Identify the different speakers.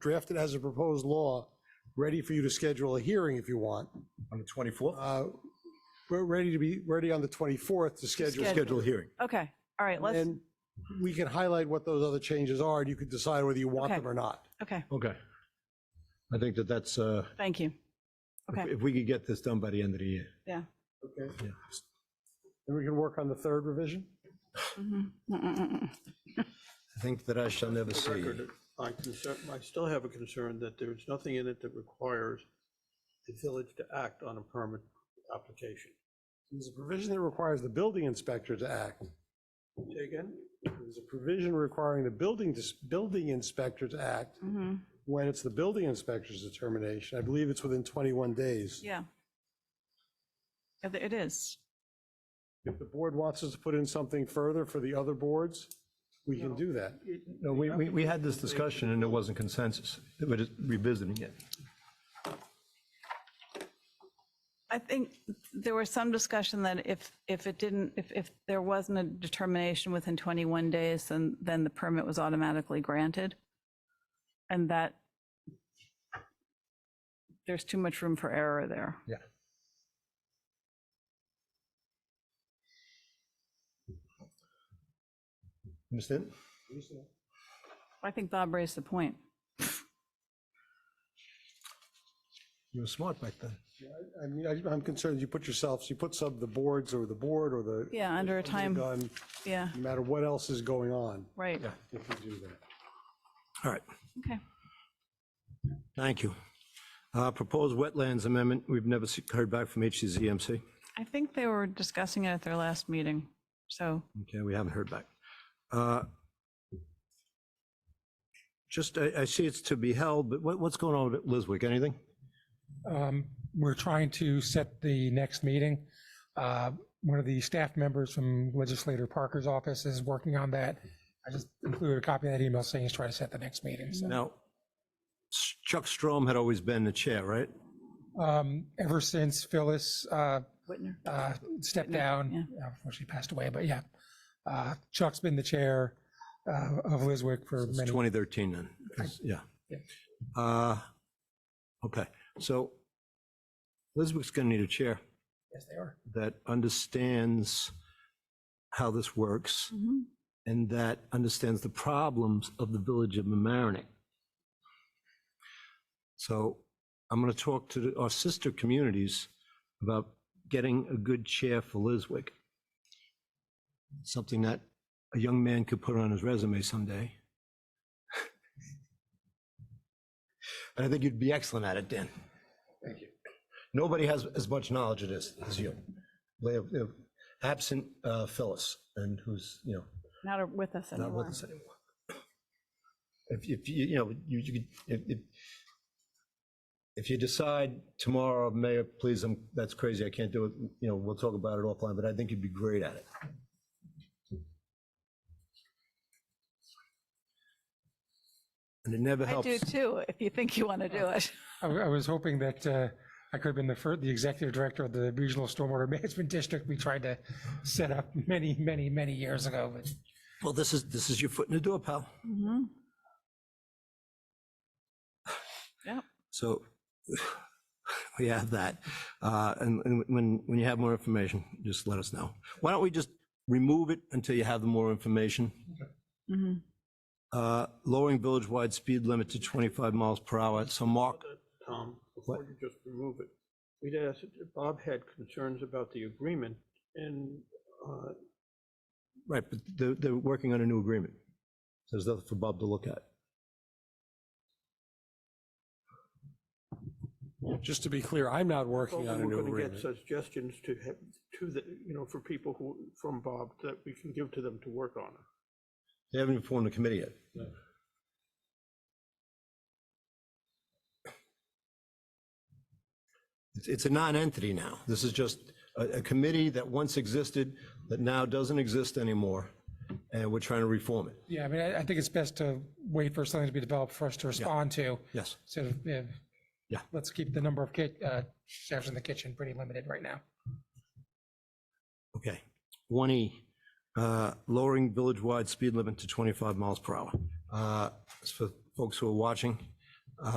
Speaker 1: draft it as a proposed law, ready for you to schedule a hearing if you want.
Speaker 2: on the 24th?
Speaker 1: Uh, We're ready to be, ready on the 24th to schedule.
Speaker 3: Schedule.
Speaker 2: Schedule a hearing.
Speaker 3: Okay, all right, let's,
Speaker 1: And we can highlight what those other changes are, and you can decide whether you want
Speaker 3: Okay.
Speaker 1: them or not.
Speaker 3: okay,
Speaker 2: Okay. I think that that's, uh,
Speaker 3: thank you.
Speaker 2: if-
Speaker 3: Okay.
Speaker 2: if we could get this done by the end of the year.
Speaker 1: Okay.
Speaker 2: Yeah.
Speaker 1: And we can work on the third revision?
Speaker 3: Mhm. Mm-mm-mm-mm.
Speaker 2: I think that I shall never
Speaker 4: the
Speaker 2: see.
Speaker 4: record, I concern, I still have a concern that there's nothing in it that requires the village to act on a permit application.
Speaker 1: There's a provision that requires the building inspector to act.
Speaker 4: Say again?
Speaker 1: There's a provision requiring the building, building inspector to act
Speaker 3: Mhm.
Speaker 1: when it's the building inspector's determination. I believe it's within 21 days.
Speaker 3: Yeah. Yeah, th- It is.
Speaker 1: If the board wants us to put in something further for the other boards, we can do that.
Speaker 2: No, we, we, we had this discussion and there wasn't consensus. We're just revisiting it.
Speaker 3: I think there was some discussion that if, if it didn't, if, if there wasn't a determination within 21 days, then, then the permit was automatically granted. And that there's too much room for error there.
Speaker 2: Yeah. Understand?
Speaker 3: I think Bob raised the point.
Speaker 2: You were smart back then.
Speaker 1: I mean, I- I'm concerned you put yourselves, you put some of the boards or the board or the.
Speaker 3: Yeah, under a
Speaker 1: the
Speaker 3: time-
Speaker 1: gun,
Speaker 3: Yeah,
Speaker 1: No matter what else is going on,
Speaker 3: right.
Speaker 2: Yeah.
Speaker 1: if we do that.
Speaker 2: All right.
Speaker 3: Okay.
Speaker 2: Thank you. Uh, Proposed wetlands amendment, we've never se- heard back from HCZMC.
Speaker 3: I think they were discussing it at their last meeting. So,
Speaker 2: Okay, we haven't heard back. Uh, Just, I, I see it's to be held, but what, what's going on with Liswick? Anything?
Speaker 5: Um, We're trying to set the next meeting. Uh, One of the staff members from Legislator Parker's office is working on that. I just included a copy of that email saying he's trying to set the next meeting. So,
Speaker 2: Now, Chuck Strom had always been the chair, right?
Speaker 5: um, Ever since Phyllis uh,
Speaker 3: Whitner.
Speaker 5: uh, stepped down, uh, she passed away, but yeah. Uh, Chuck's been the chair uh, of Liswick for
Speaker 2: It's
Speaker 5: many.
Speaker 2: 2013 then, 'cause- yeah.
Speaker 5: Yeah.
Speaker 2: Uh, Okay, so Liswick's going to need a chair
Speaker 5: Yes, they are.
Speaker 2: that understands how this works
Speaker 3: Mhm.
Speaker 2: and that understands the problems of the village of Mamaroneck. So I'm going to talk to the- our sister communities about getting a good chair for Liswick. Something that a young man could put on his resume someday. And I think you'd be excellent at it, Dan. Thank you. Nobody has as much knowledge of this as you. They have- they have Absent uh, Phyllis, and who's, you know,
Speaker 3: Not with us
Speaker 2: not with
Speaker 3: anymore.
Speaker 2: us anymore. If, if, you you know, you, you could, if, if, if you decide tomorrow, Mayor, please, I'm, that's crazy, I can't do it, you know, we'll talk about it offline, but I think you'd be great at it. And it never
Speaker 3: I
Speaker 2: helps.
Speaker 3: do too, if you think you want to do it.
Speaker 5: I I was hoping that uh, I could have been the first, the executive director of the Regional Stormwater Management District we tried to set up many, many, many years ago, but
Speaker 2: Well, this is, this is your foot in the door, pal.
Speaker 3: Mhm. Yep.
Speaker 2: So we have that. Uh, And and when, when you have more information, just let us know. Why don't we just remove it until you have the more information?
Speaker 3: Mhm.
Speaker 2: Uh, Lowering village-wide speed limit to 25 miles per hour. So Mark,
Speaker 4: Tom, before
Speaker 2: What?
Speaker 4: you just remove it, we'd asked, Bob had concerns about the agreement and, uh,
Speaker 2: right, but they're, they're working on a new agreement. So There's nothing for Bob to look at.
Speaker 1: Just to be clear, I'm not working on a
Speaker 4: we're
Speaker 1: new
Speaker 4: going to get
Speaker 1: agreement.
Speaker 4: suggestions to, have- to the, you know, for people who, from Bob that we can give to them to work on.
Speaker 2: They haven't even formed a committee yet. It's- It's a non-entity now. This is just a, a committee that once existed, that now doesn't exist anymore, and we're trying to reform it.
Speaker 5: yeah, I mean, I I think it's best to wait for something to be developed for us to respond to.
Speaker 2: Yes.
Speaker 5: So, yeah,
Speaker 2: Yeah.
Speaker 5: let's keep the number of ki- uh, chefs in the kitchen pretty limited right now.
Speaker 2: Okay. 1E, uh, lowering village-wide speed limit to 25 miles per hour. Uh, As for folks who are watching,